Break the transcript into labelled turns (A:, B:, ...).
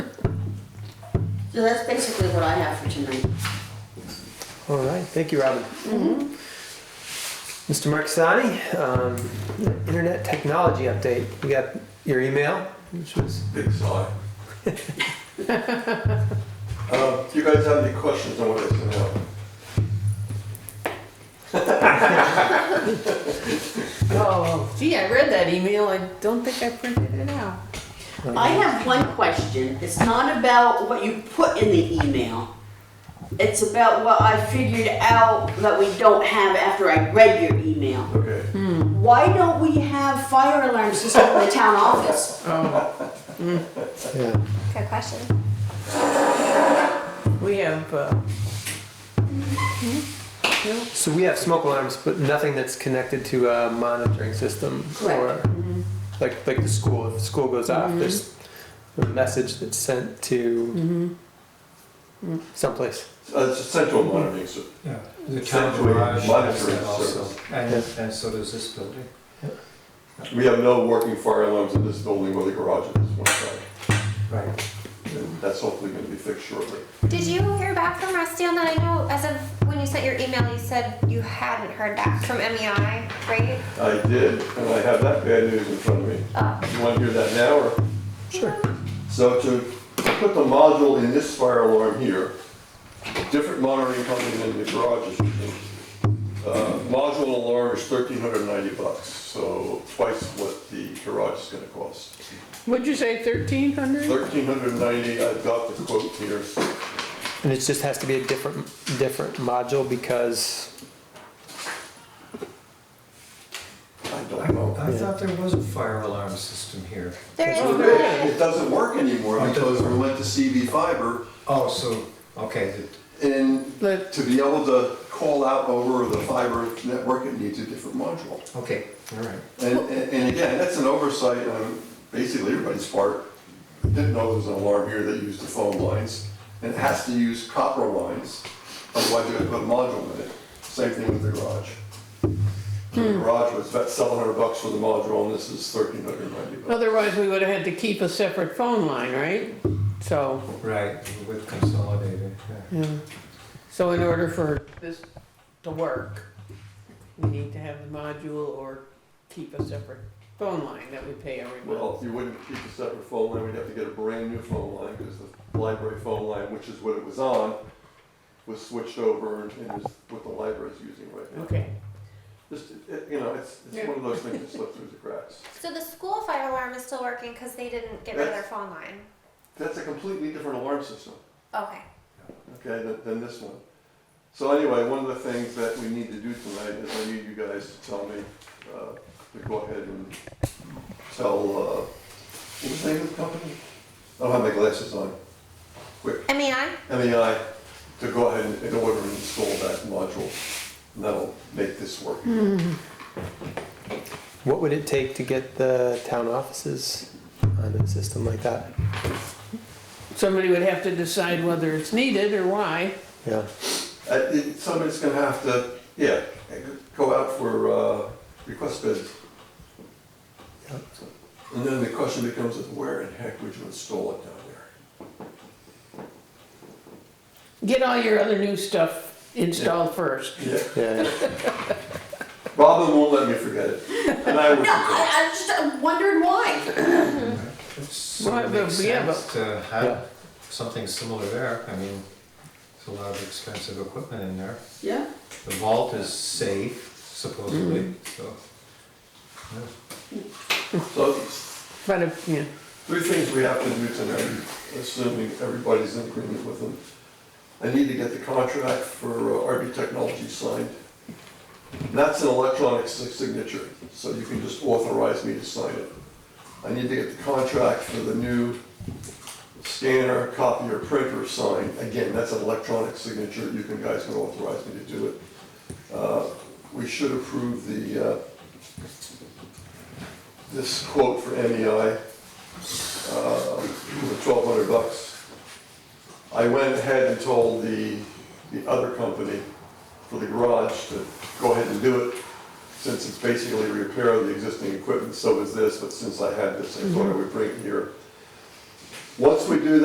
A: So that's basically what I have for tonight.
B: All right, thank you, Robin. Mr. Mark Sani, um, internet technology update. We got your email, which was
C: Big sigh. Uh, Do you guys have any questions on what I sent out?
D: Oh, gee, I read that email. I don't think I printed it out.
B: uh,
A: I have one question. It's not about what you put in the email. It's about what I figured out that we don't have after I read your email.
C: Okay.
A: Why don't we have fire alarm system in the town office?
B: yeah.
E: Good question.
D: We have, uh,
B: So we have smoke alarms, but nothing that's connected to a monitoring system
A: Correct. Mm-hmm.
B: or like like the school. If the school goes off, there's a message that's sent to
A: Mm-hmm. Mm.
B: someplace.
C: Uh, It's a central monitoring, so
F: Yeah, the town
C: Essentially,
F: garage has
C: monitoring
F: that also,
C: service.
F: and,
B: Yes.
F: and so does this building.
C: we have no working fire alarms in this building or the garage at this one time.
F: Right.
C: And that's hopefully gonna be fixed shortly.
E: Did you hear back from Rusty on that? I know as of when you sent your email, you said you hadn't heard back from MEI, right?
C: I did, and I have that bad news in front of me.
E: Oh,
C: You wanna hear that now, or?
B: Sure.
C: So to put the module in this fire alarm here, different monitoring company than the garages. Uh, Module and alarm is thirteen hundred and ninety bucks, so twice what the garage is gonna cost.
D: what'd you say, 1300?
C: Thirteen hundred and ninety, I've got the quote here.
B: And it just has to be a different different module because
C: I
F: I,
C: don't know.
F: I thought there was a fire alarm system here.
E: there
C: Well,
E: is.
C: there is. It doesn't work anymore because we went to CV fiber
F: Oh, so, okay, the-
C: and
B: Let-
C: to be able to call out over the fiber network, it needs a different module.
F: okay, all right.
C: And, and and again, that's an oversight on basically everybody's part. Didn't know there was an alarm here that used the phone lines, and it has to use copper lines, otherwise you're gonna put a module in it. Same thing with the garage. So The garage was about seven hundred bucks for the module, and this is thirteen hundred ninety bucks.
D: Otherwise, we would have had to keep a separate phone line, right? So,
F: Right, with consolidated, yeah.
D: yeah. So in order for this to work, we need to have the module or keep a separate phone line that we pay every month.
C: Well, you wouldn't keep a separate phone line, we'd have to get a brand new phone line, because the library phone line, which is what it was on, was switched over and is what the library's using right now.
D: Okay,
C: Just, it- it- you know, it's, it's one of those things that slipped through the cracks.
E: So the school fire alarm is still working because they didn't get rid of their phone line.
C: That's a completely different alarm system,
E: Okay.
C: okay, than, than this one. So anyway, one of the things that we need to do tonight is I need you guys to tell me, uh, to go ahead and tell, uh, what was the name of the company? I don't have my glasses on. Quick,
E: MEI?
C: MEI, to go ahead and- and order and install that module, and that'll make this work.
B: what would it take to get the town offices onto the system like that?
D: somebody would have to decide whether it's needed or why.
B: Yeah.
C: Uh, it- Somebody's gonna have to, yeah, go out for uh, request bids.
B: Yeah.
C: And then the question becomes is where in heck would you install it down there?
D: Get all your other new stuff installed first.
C: Yeah,
B: Yeah.
C: Robin won't let me forget it, and I will
A: No,
C: forget.
A: I, I was just wondering why.
F: So
D: Well,
F: it
D: but
F: makes
D: we have a-
F: sense to
B: Yeah.
F: have something similar there, I mean, it's a lot of expensive equipment in there.
A: Yeah,
F: The vault is safe supposedly,
D: Mm-hmm.
F: so. yeah.
C: So,
D: But if, yeah,
C: three things we have to do tonight, assuming everybody's in agreement with them. I need to get the contract for uh, RB Technology signed. And That's an electronic si- signature, so you can just authorize me to sign it. I need to get the contract for the new scanner, copier, printer signed. Again, that's an electronic signature, you can, guys can authorize me to do it. Uh, We should approve the, uh, this quote for E MEI, uh, twelve hundred bucks. I went ahead and told the, the other company for the garage to go ahead and do it, since it's basically a repair of the existing equipment, so is this, but since I had this, I thought I would bring it here. Once we do